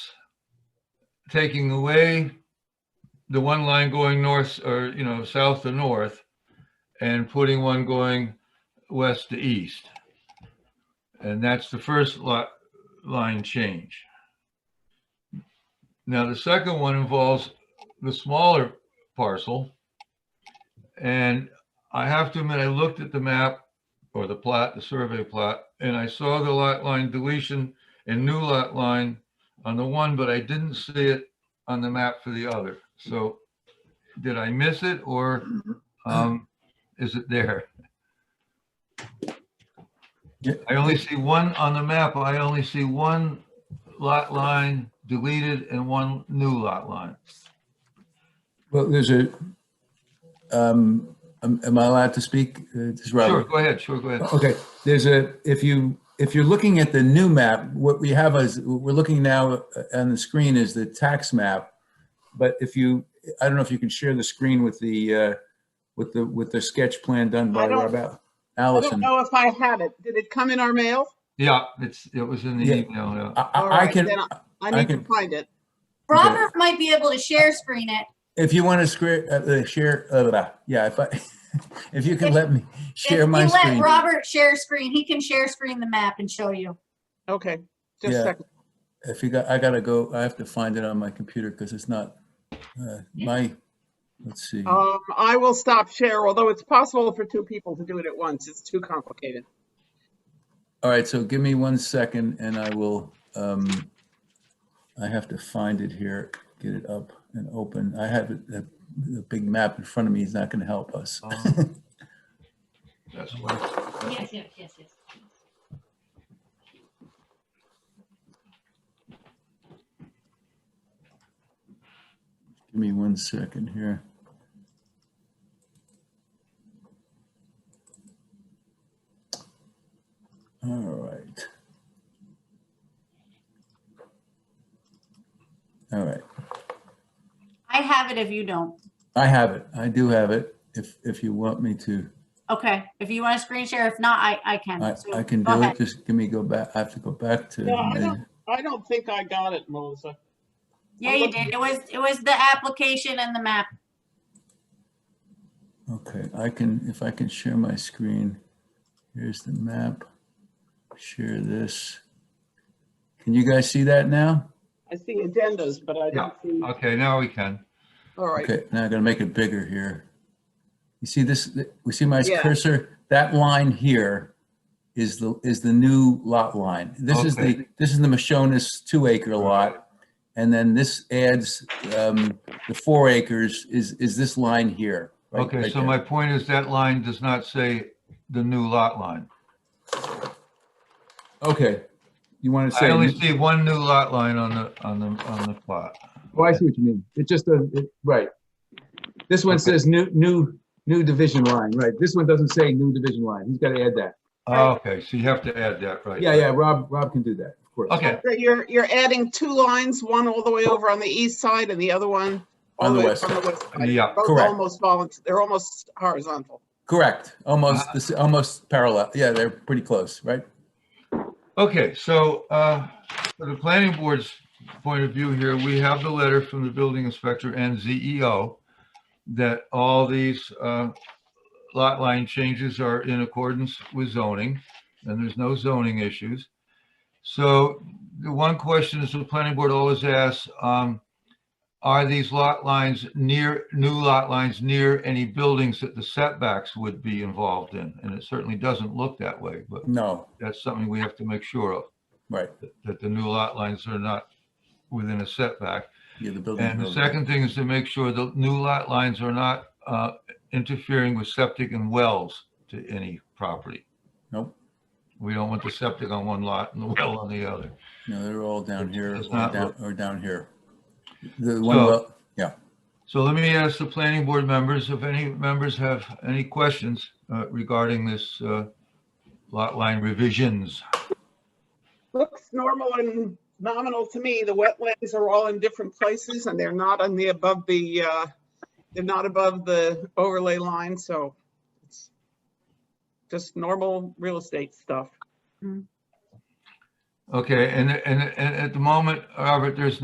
taking away the one line going north or, you know, south to north and putting one going west to east. And that's the first lot, line change. Now, the second one involves the smaller parcel. And I have to admit, I looked at the map or the plot, the survey plot, and I saw the lot line deletion and new lot line on the one, but I didn't see it on the map for the other. So did I miss it or um, is it there? Yeah. I only see one on the map. I only see one lot line deleted and one new lot line. Well, there's a, um, am am I allowed to speak? Uh, This is Sure, Robert. go ahead, sure, go ahead. Okay, there's a, if you, if you're looking at the new map, what we have is, we're looking now uh, on the screen is the tax map. But if you, I don't know if you can share the screen with the, uh, with the, with the sketch plan done by I don't- Rob Al- I don't Allison. I, know if I have it. Did it come in our mail? Yeah, it's, it was in the Yeah. email, yeah. I- All I right, can, then I need to can- find it. Robert might be able to share screen it. if you want to scre- uh, uh, share, uh, blah, yeah, if I, if you can If- let me share If my you screen. let Robert share screen, he can share screen the map and show you. Okay, just Yeah. a second. If you got, I gotta go, I have to find it on my computer because it's not, uh, my, let's see. Um, I will stop share, although it's possible for two people to do it at once. It's too complicated. All right, so give me one second and I will, um, I have to find it here, get it up and open. I have it, the, the big map in front of me is not gonna help us. Um, That's why, Yes, yes, yes, yes. Give me one second here. All right. All right, I have it if you don't. I have it. I do have it. If, if you want me to, Okay, if you want to screen share, if not, I, I I, can. So I can go do it. ahead. Just give me, go back. I have to go back to. No, I the- don't- I don't think I got it, Melissa. Yeah, you did. It was, it was the application and the map. Okay, I can, if I can share my screen, here's the map. Share this. Can you guys see that now? I see addendas, but I don't see, okay, now we can. all right. Okay, now I'm gonna make it bigger here. You see this, we see my Yeah. cursor, that line here is the, is the new lot line. This is the, Okay. this is the Moschanus two acre lot. And then this adds, um, the four acres is, is this line here. right- Okay, right so there. my point is that line does not say the new lot line. Okay, you wanna say? I only see one new lot line on the, on the, on the plot. Well, Oh, I see what you mean. It just doesn't, it- right. This one Okay. says new, new, new division line, right? This one doesn't say new division line. He's got to add that. Oh, Okay, so you have to add that, right? Yeah, yeah, Rob, Rob can do that, of course. Okay, So You're, you're adding two lines, one all the way over on the east side and the other one all On the way west up on the side. west side. yeah, Both Correct. almost volunteer, they're almost horizontal. Correct. Uh, Almost, this, almost parallel. Yeah, they're pretty close, right? okay, so, uh, for the planning board's point of view here, we have the letter from the building inspector and ZEO that all these, uh, lot line changes are in accordance with zoning, and there's no zoning issues. So the one question is the planning board always asks, um, are these lot lines near, new lot lines near any buildings that the setbacks would be involved in? And it certainly doesn't look that way, but No, that's something we have to make sure of, right. that- that the new lot lines are not within a setback. Yeah, the building. And the second thing is to make sure the new lot lines are not uh, interfering with septic and wells to any property. Nope. We don't want the septic on one lot and the well on the other. No, they're all down here or It's not- down, or down here. The one, So- well- So let me ask the planning board members, if any members have any questions uh, regarding this uh, lot line revisions. Looks normal and nominal to me. The wetlands are all in different places and they're not on the above the, uh, they're not above the overlay line, so it's just normal real estate stuff. Okay, and, and, and at the moment, Robert, there's